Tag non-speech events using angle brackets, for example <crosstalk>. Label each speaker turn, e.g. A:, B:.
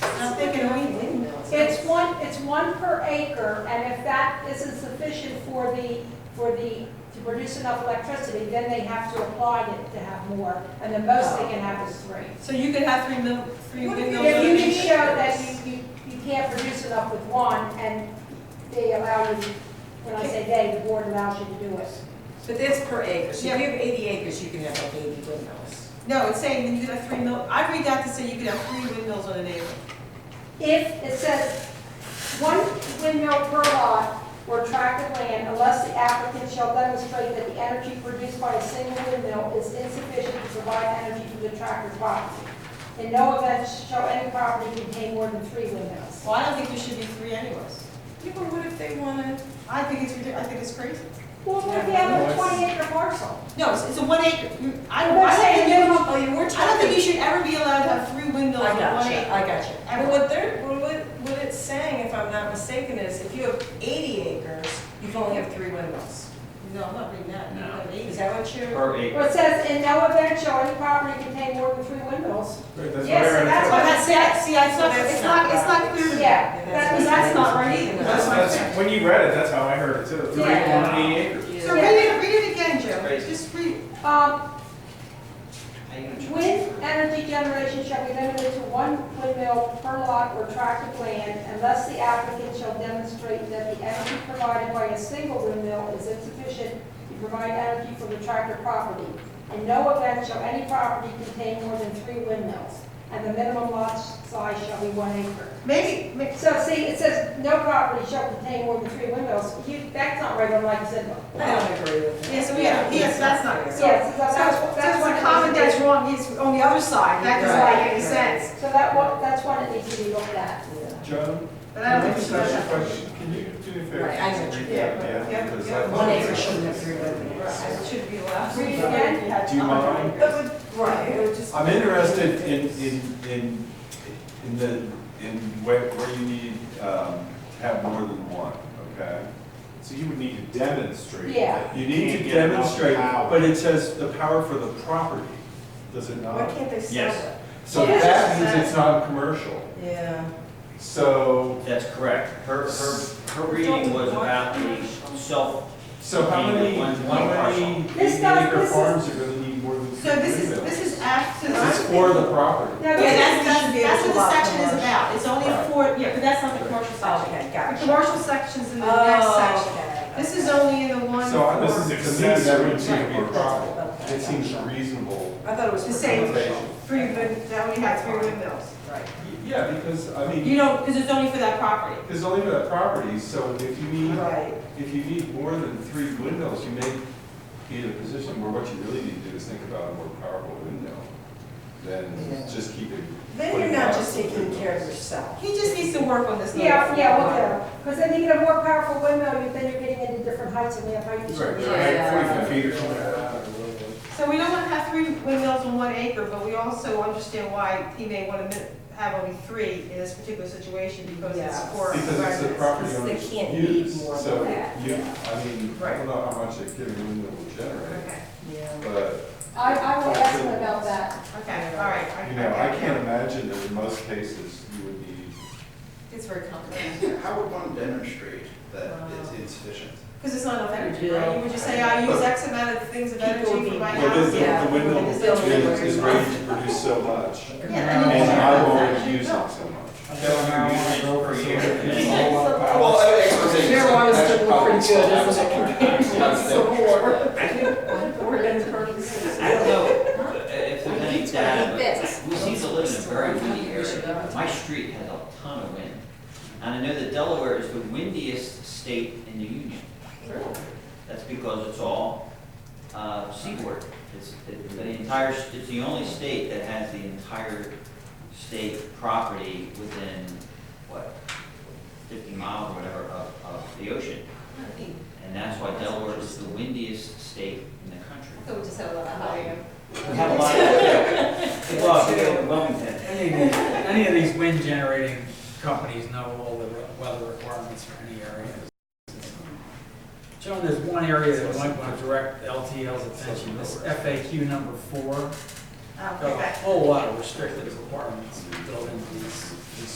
A: I'm thinking we didn't.
B: It's one, it's one per acre, and if that isn't sufficient for the, for the, to produce enough electricity, then they have to apply it to have more, and the most they can have is three.
A: So you could have three mil, three
C: What if you-
A: windmills.
B: If you can show that you, you, you can't produce enough with one, and they allow you, when I say they, the board allows you to do it.
A: But that's per acre, so
C: Yeah.
A: if you have eighty acres, you can have like eighty windmills.
C: No, it's saying that you could have three mil, I read that to say you could have three windmills on an acre.
B: If it says one windmill per lot or tract of land unless the applicant shall demonstrate that the energy produced by a single windmill is insufficient to provide energy to the tract or property. In no event shall any property contain more than three windmills.
C: Well, I don't think there should be three anyways.
A: Yeah, but what if they wanna?
C: I think it's ridiculous, I think it's crazy.
B: Well, what if you have a twenty acre parcel?
C: No, it's, it's a one acre, You- I don't,
B: But
C: I don't
B: say
C: think
B: you-
C: you,
A: Oh, you were talking.
C: I don't think you should ever be allowed to have three windmills
A: I
C: on one
A: gotcha,
C: acre.
A: I gotcha. And what they're, what, what- what it's saying, if I'm not mistaken, is if you have eighty acres, you can only have three windmills.
C: No, I'm not reading that, you
D: No.
C: have
A: Is
C: acres.
A: that what you're?
D: Per acre.
B: Well, it says in no event shall any property contain more than three windmills.
E: That's
B: Yes,
E: what I read.
B: that's
C: Well, that's, see, I- see, I- it's not, it's not, it's not clear to me.
B: Yeah,
C: That- that's not right either.
E: That's, that's, when you read it, that's how I heard it too. Three
B: Yeah.
E: point eight acres.
C: So read it, read it again, Joe,
D: Crazy.
C: just read. it.
B: Um, Wind energy generation shall be limited to one windmill per lot or tract of land unless the applicant shall demonstrate that the energy provided by a single windmill is insufficient to provide energy for the tract or property. In no event shall any property contain more than three windmills, and the minimum lot size shall be one acre.
C: Maybe, ma-
B: So see, it says no property shall contain more than three windmills. You, that's not right on like you said.
A: I don't agree with that.
C: yeah, so we have, yes, that's not, so.
B: Yes,
C: So,
B: that's,
C: so
B: that's, that's
C: the
B: what.
C: comment that's wrong is on the other side, that doesn't
A: Right.
C: make any sense.
B: So that one, that's one that needs to be looked at.
E: John,
C: But I
E: can I
C: don't think we
E: just
C: should.
E: ask you a question? Can you do me a favor?
A: Right, I know what you
E: Read
A: mean.
E: that,
C: Yeah,
E: Yeah. because
C: yeah.
E: I-
A: One acre shouldn't have three windmills.
C: It should be allowed.
B: Read it again.
E: Do you mind?
A: But, would- right, it would just.
E: I'm interested in, in, in, in the, in where, where you need, um, to have more than one, okay?
F: So you would need to demonstrate.
B: Yeah.
F: that
E: You need
F: can't
E: to
F: get enough
E: demonstrate,
F: power.
E: but it says the power for the property, does it
A: Why
E: not?
A: can't they sell
D: Yes.
A: it?
E: So
B: Yes.
E: that means it's not commercial.
A: Yeah.
E: So,
D: That's correct. Her, her, her reading was about the self,
E: so how many,
D: One- one
E: how many
D: parcel.
B: This does-
E: acre
B: this is-
E: farms are gonna need more than three
C: So this is,
E: windmills?
C: this is after.
E: This is for the property.
B: No,
C: Yeah, that's, that's, that's what the section is about, it's only
E: Right.
C: for, yeah, but that's not the commercial section.
A: Okay,
C: The
A: gotcha.
C: commercial section's in the next section.
A: Oh, okay.
C: Oh. This is only in the one
E: So I- this
C: for-
E: is
F: To me,
E: excessive.
F: that would seem to be a problem.
E: It
A: Okay.
E: seems reasonable.
A: I thought it was.
C: The same.
E: limitation.
C: three, wind- that we had three windmills.
A: Right.
E: Yeah, because, I mean,
C: You know, because it's only for that property.
E: there's only that property, so if you need,
A: Right.
E: if you need more than three windows, you may be in a position where what you really need to do is think about a more powerful window than
A: Yeah.
E: just keeping.
A: Then you're not just taking care of yourself.
C: He just needs to work on this. little-
B: Yeah, yeah, look at them, because then you get a more powerful windmill, you- then you're getting into different heights and we have height
E: Right,
B: issues.
E: right,
F: Yeah.
E: forty-five feet or something.
C: So we don't want to have three windmills on one acre, but we also understand why he may want to have only three in this particular situation because it's
A: Yeah.
C: for
E: Because it's the
C: residents.
E: property
A: They
E: owner's
A: can't need
E: use,
A: more than
E: so
A: that.
E: you, I mean, I don't know how much a given window will generate,
C: Okay,
A: Yeah.
E: but
B: I, I will ask them about that.
C: okay, all right.
E: You know, I can't imagine that in most cases you would need,
C: It's very complicated.
G: How would one demonstrate that it's insufficient?
C: Because it's not enough energy, right? You would just say, I use X amount of things of energy for my
E: but is
C: house.
E: the,
A: Yeah.
E: the window
C: It's
E: is,
C: built
E: is ready to produce so much.
C: Yeah,
E: And I will
C: I
E: only
C: mean,
E: use it so much.
D: per year.
C: <laughs>
F: Well, I would actually say.
A: Marijuana's still
F: Probably
A: pretty good,
F: still
A: isn't it? <laughs>
F: have some.
D: I don't know if there's any data, but we seem to live in a very windy area. My street has a ton of wind. And I know that Delaware is the windiest state in the union. That's because it's all uh, seaboard. It's, it- the entire, it's the only state that has the entire state property within, what, 50 miles or whatever of, of the ocean. And that's why Delaware is the windiest state in the country.
C: So we just had a lot of high.
D: We have a lot of, <laughs> well, we have Wilmington.
H: Any of these- any of these wind generating companies know all the re- weather requirements for any area. Joan, there's one area that might want to direct LTL's attention, this
C: uh,
H: FAQ number four. Got a whole lot of restrictive requirements built into these